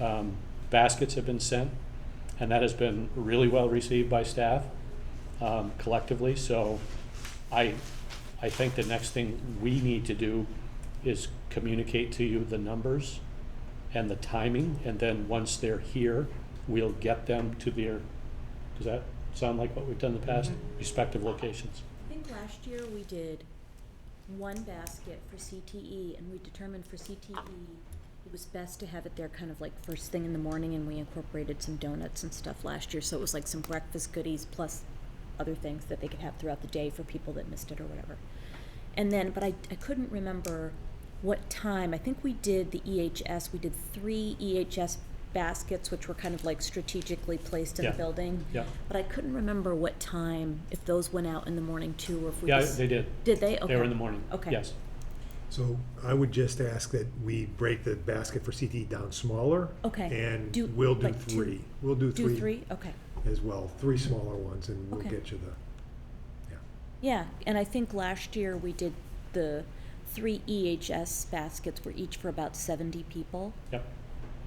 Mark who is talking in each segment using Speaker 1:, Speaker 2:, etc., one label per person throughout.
Speaker 1: Um, Baskets have been sent, and that has been really well received by staff um, collectively. So I, I think the next thing we need to do is communicate to you the numbers and the timing, and then once they're here, we'll get them to their, does that sound like what we've done in the past?
Speaker 2: Mm-hmm.
Speaker 1: Respective locations.
Speaker 2: I think last year we did one basket for CTE, and we determined for CTE, it was best to have it there kind of like first thing in the morning, and we incorporated some donuts and stuff last year, so it was like some breakfast goodies plus other things that they could have throughout the day for people that missed it or whatever. And then, but I, I couldn't remember what time, I think we did the EHS, we did three EHS baskets, which were kind of like strategically placed in the
Speaker 1: Yeah.
Speaker 2: building.
Speaker 1: Yeah.
Speaker 2: But I couldn't remember what time, if those went out in the morning too, or if we
Speaker 1: Yeah,
Speaker 2: just-
Speaker 1: they did.
Speaker 2: Did they? Okay.
Speaker 1: They were in the morning.
Speaker 2: Okay.
Speaker 1: Yes.
Speaker 3: So I would just ask that we break the basket for CTE down smaller.
Speaker 2: Okay.
Speaker 3: And
Speaker 2: Do-
Speaker 3: we'll do
Speaker 2: like two-
Speaker 3: three. We'll do
Speaker 2: Do
Speaker 3: three
Speaker 2: three? Okay.
Speaker 3: as well, three smaller ones, and we'll
Speaker 2: Okay.
Speaker 3: get you the, yeah.
Speaker 2: Yeah, and I think last year we did the three EHS baskets were each for about seventy people.
Speaker 1: Yep.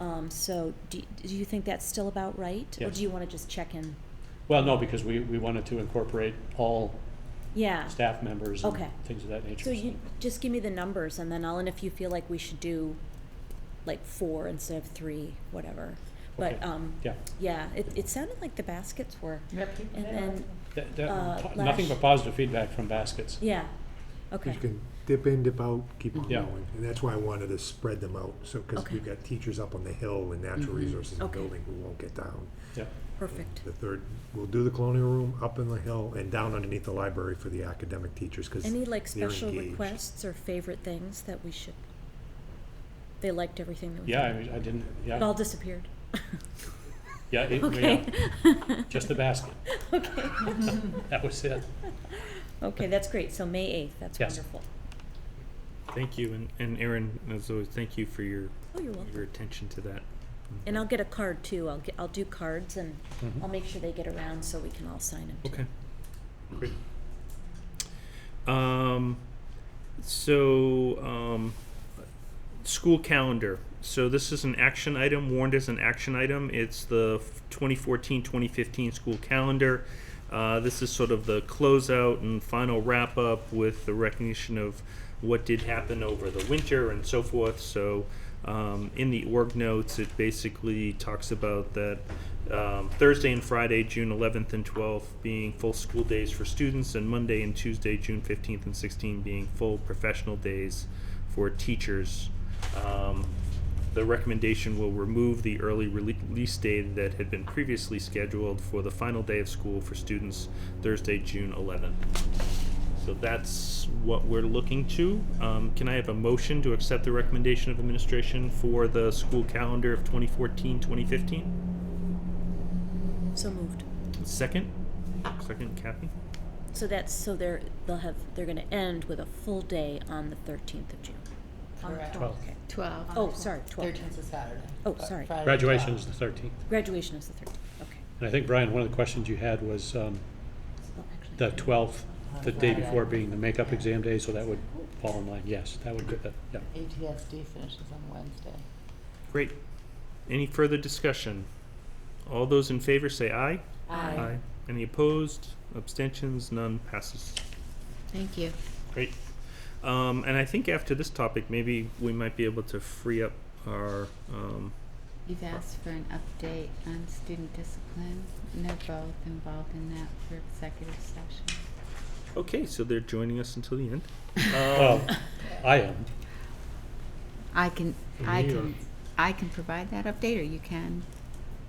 Speaker 2: Um, so do, do you think that's still about right? Or
Speaker 1: Yes.
Speaker 2: do you wanna just check in?
Speaker 1: Well, no, because we, we wanted to incorporate all
Speaker 2: Yeah.
Speaker 1: staff members and
Speaker 2: Okay.
Speaker 1: things of that nature.
Speaker 2: So you, just give me the numbers and then I'll, and if you feel like we should do like four instead of three, whatever. But,
Speaker 1: Okay.
Speaker 2: um,
Speaker 1: Yeah.
Speaker 2: yeah, it, it sounded like the baskets were.
Speaker 4: Yep.
Speaker 2: And then,
Speaker 1: That- that-
Speaker 2: Uh,
Speaker 1: po- nothing
Speaker 2: Lash-
Speaker 1: but positive feedback from baskets.
Speaker 2: yeah,
Speaker 3: You
Speaker 2: okay,
Speaker 3: can dip in, dip out, keep on
Speaker 1: Yeah.
Speaker 3: going. And that's why I wanted to spread them out, so, because
Speaker 2: Okay.
Speaker 3: we've got teachers up on the hill and natural
Speaker 2: Mhm.
Speaker 3: resources in the
Speaker 2: Okay.
Speaker 3: building who won't get down.
Speaker 1: Yep.
Speaker 2: perfect.
Speaker 3: The third, we'll do the colonial room, up in the hill, and down underneath the library for the academic teachers, because
Speaker 2: Any like
Speaker 3: they're
Speaker 2: special
Speaker 3: engaged.
Speaker 2: requests or favorite things that we should? They liked everything that we
Speaker 1: Yeah, I
Speaker 2: did.
Speaker 1: mean, I didn't,
Speaker 2: It
Speaker 1: yeah,
Speaker 2: all disappeared.
Speaker 1: yeah, it-
Speaker 2: Okay.
Speaker 1: yeah, just the basket.
Speaker 2: Okay.
Speaker 1: That was it.
Speaker 2: Okay, that's great. So May eighth, that's
Speaker 1: Yes.
Speaker 2: wonderful.
Speaker 4: Thank you, and, and Aaron, as always, thank you for your,
Speaker 2: Oh, you're
Speaker 4: your
Speaker 2: welcome.
Speaker 4: attention to that.
Speaker 2: And I'll get a card too. I'll get, I'll do cards and
Speaker 1: Mhm.
Speaker 2: I'll make sure they get around so we can all sign them.
Speaker 4: Okay. Great. Um, so, um, school calendar. So this is an action item, warned as an action item. It's the 2014-2015 school calendar. Uh, this is sort of the closeout and final wrap up with the recognition of what did happen over the winter and so forth. So um, in the org notes, it basically talks about that um, Thursday and Friday, June 11th and 12th, being full school days for students, and Monday and Tuesday, June 15th and 16th, being full professional days for teachers. Um, the recommendation will remove the early rele- release day that had been previously scheduled for the final day of school for students, Thursday, June 11th. So that's what we're looking to. Um, can I have a motion to accept the recommendation of administration for the school calendar of 2014 2015?
Speaker 2: So moved.
Speaker 4: Second? Second, Kathy?
Speaker 2: So that's, so they're, they'll have, they're gonna end with a full day on the thirteenth of June. On the
Speaker 5: Correct.
Speaker 1: Twelve.
Speaker 2: Okay.
Speaker 5: 12.
Speaker 2: Oh, sorry, 12.
Speaker 5: Thirteenth is Saturday.
Speaker 2: Oh,
Speaker 5: but
Speaker 2: sorry.
Speaker 5: Friday,
Speaker 1: Graduation is
Speaker 5: 12.
Speaker 1: the thirteenth.
Speaker 2: Graduation is the thirteenth, okay.
Speaker 1: And I think, Brian, one of the questions you had was um,
Speaker 2: Well, actually-
Speaker 1: the twelfth, the day
Speaker 5: Friday.
Speaker 1: before being the makeup exam day, so that would fall in line. Yes, that would be the, yeah.
Speaker 5: uh, ATSD finishes on Wednesday.
Speaker 4: Great. Any further discussion? All those in favor say aye.
Speaker 2: Aye.
Speaker 4: Any opposed? Abstentions? None. Passes.
Speaker 5: Thank you.
Speaker 4: Great. Um, and I think after this topic, maybe we might be able to free up our. Um,
Speaker 6: You've asked for an update on student discipline, and they're both involved in that for executive session.
Speaker 4: okay, so they're joining us until the end.
Speaker 1: Oh, I am.
Speaker 6: I can, I
Speaker 3: me or-
Speaker 6: can, I can provide that update, or you can.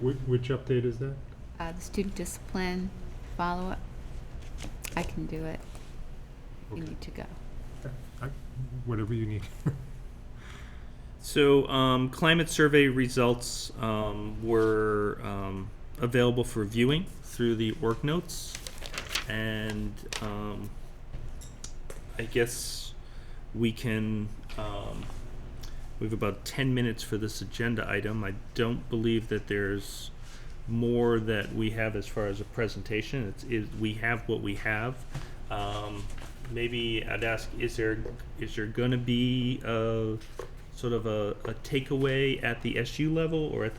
Speaker 3: Which, which update is that?
Speaker 6: Uh, the student discipline follow-up, I can do it. You
Speaker 3: Okay.
Speaker 6: need to go.
Speaker 3: I- Whatever you need.
Speaker 4: So, um, climate survey results um, were um, available for viewing through the org notes, and um, I guess we can. Um, we have about ten minutes for this agenda item. I don't believe that there's more that we have as far as a presentation. It's is we have what we have. Um, maybe I'd ask: Is there is there uh, going to be a sort of a, a takeaway at the SU level or at the